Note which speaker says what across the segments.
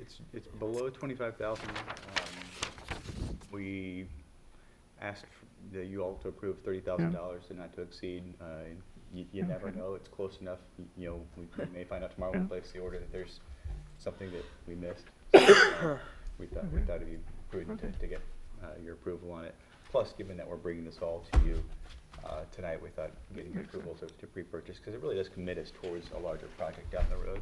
Speaker 1: it's, it's below twenty-five thousand. Um, We asked f- that you all to approve thirty thousand dollars and not to exceed. Uh, You, you never
Speaker 2: Okay.
Speaker 1: know, it's close enough, y- you know, we we may find out tomorrow when we place the order that there's something that we missed. So, uh, We thought, we
Speaker 2: Okay.
Speaker 1: thought it'd be prudent to,
Speaker 2: Okay.
Speaker 1: to get uh, your approval on it. Plus, given that we're bringing this all to you uh, tonight, we thought getting your
Speaker 2: Makes sense.
Speaker 1: approval to, to pre-purchase, because it really does commit us towards a larger project down the road.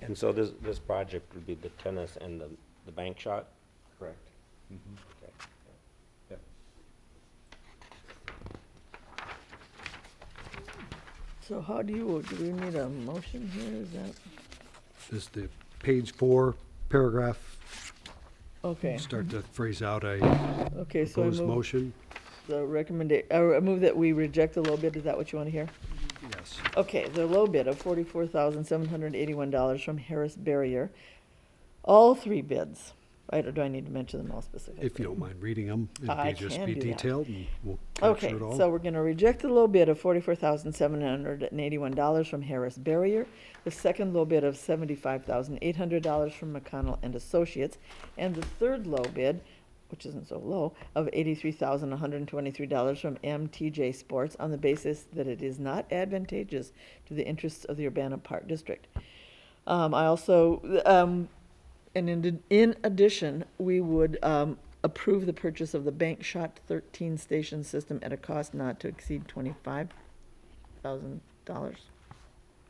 Speaker 3: And so this, this project would be the tennis and the, the bank shot?
Speaker 1: Correct. Mm-hmm.
Speaker 3: Okay.
Speaker 1: Yep.
Speaker 2: So how do you, do we need a motion here, is that,
Speaker 4: is the page four paragraph,
Speaker 2: okay,
Speaker 4: start to phrase out a
Speaker 2: okay, so I
Speaker 4: proposed
Speaker 2: move
Speaker 4: motion.
Speaker 2: the recommendation, I move that we reject the low bid, is that what you want to hear?
Speaker 4: Yes.
Speaker 2: Okay, the low bid of forty-four thousand seven hundred eighty-one dollars from Harris Barrier. All three bids, I don't- do I need to mention them all specifically?
Speaker 4: If you don't mind reading them,
Speaker 2: I
Speaker 4: it'd be just
Speaker 2: can
Speaker 4: be
Speaker 2: do that.
Speaker 4: detailed and we'll capture
Speaker 2: Okay,
Speaker 4: it all.
Speaker 2: so we're gonna reject the low bid of forty-four thousand seven hundred and eighty-one dollars from Harris Barrier, the second low bid of seventy-five thousand eight hundred dollars from McConnell and Associates, and the third low bid, which isn't so low, of eighty-three thousand one hundred and twenty-three dollars from MTJ Sports on the basis that it is not advantageous to the interests of the Urbana Park District. Um, I also, um, and in, in addition, we would, um, approve the purchase of the Bank Shot thirteen station system at a cost not to exceed twenty-five thousand dollars.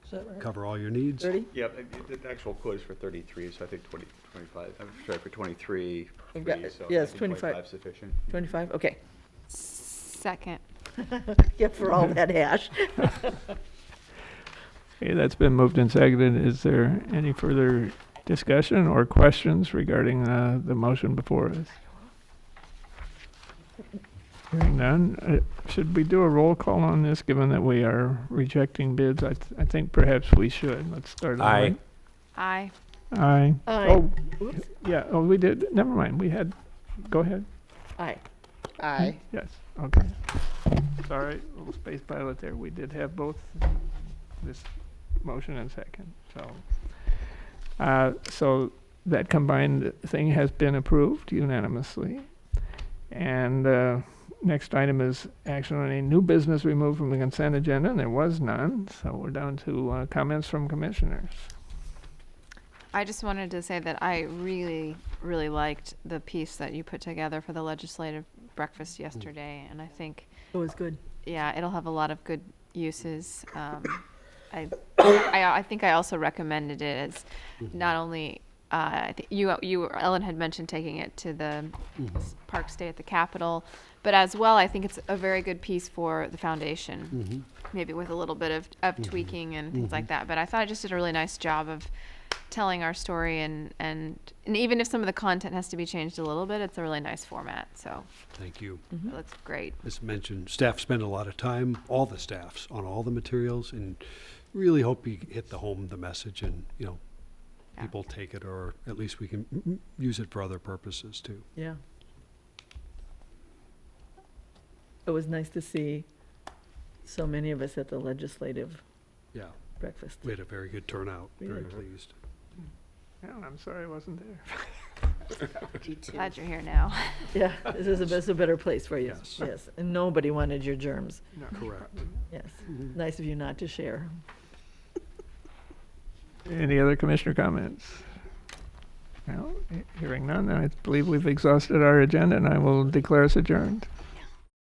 Speaker 2: Is that right?
Speaker 4: Cover all your needs.
Speaker 2: Thirty?
Speaker 1: Yeah, the, the actual quote is for thirty-three, so I think twenty, twenty-five, I'm sorry, for twenty-three.
Speaker 2: We've got-
Speaker 1: three, so
Speaker 2: yeah,
Speaker 1: I
Speaker 2: it's
Speaker 1: think
Speaker 2: 25.
Speaker 1: 25 's Sufficient.
Speaker 2: Twenty-five, okay.
Speaker 5: Second.
Speaker 2: Yeah, for all that hash.
Speaker 6: Okay, that's been moved and seconded. Is there any further discussion or questions regarding uh, the motion before us? Hearing none, uh, should we do a roll call on this, given that we are rejecting bids? I, th- I think perhaps we should. Let's start. on
Speaker 3: Aye.
Speaker 5: Aye.
Speaker 6: the- Aye.
Speaker 2: Aye.
Speaker 6: Oh,
Speaker 2: Oops.
Speaker 6: yeah, oh, we did, never mind, we had, go ahead.
Speaker 2: Aye. Aye.
Speaker 6: Yes, okay. It's all right, little space pilot there. We did have both this motion and second, so. Uh, so that combined thing has been approved unanimously. And, uh, next item is action on a new business removed from the consent agenda, and there was none, so we're down to, uh, comments from commissioners.
Speaker 5: I just wanted to say that I really, really liked the piece that you put together for the legislative breakfast yesterday, and I think,
Speaker 2: It was good.
Speaker 5: yeah, it'll have a lot of good uses. Um, I, I, I think I also recommended it as not only, uh, I think you, you, Ellen had mentioned taking it to the s- park stay at the Capitol, but as well, I think it's a very good piece for the foundation. maybe with a little bit of, of tweaking and things like that. But I thought I just did a really nice job of telling our story and, and and even if some of the content has to be changed a little bit, it's a really nice format. So
Speaker 4: Thank you.
Speaker 5: it looks great.
Speaker 4: As mentioned, staff spend a lot of time, all the staffs, on all the materials and really hope you hit the home, the message and, you know,
Speaker 5: Yeah.
Speaker 4: people take it or at least we can mm, mm, use it for other purposes too.
Speaker 2: Yeah. It was nice to see so many of us at the legislative
Speaker 4: Yeah,
Speaker 2: breakfast.
Speaker 4: we had a very good turnout,
Speaker 2: We
Speaker 4: very
Speaker 2: did.
Speaker 4: pleased.
Speaker 6: Yeah, I'm sorry I wasn't there.
Speaker 5: Glad you're here now.
Speaker 2: Yeah, this is a, this is a better place for you,
Speaker 4: Yes.
Speaker 2: yes. And nobody wanted your germs,
Speaker 6: No,
Speaker 4: Correct.
Speaker 2: yes. Nice of you not to share.
Speaker 6: Any other commissioner comments? No, he- hearing none, I believe we've exhausted our agenda and I will declare us adjourned.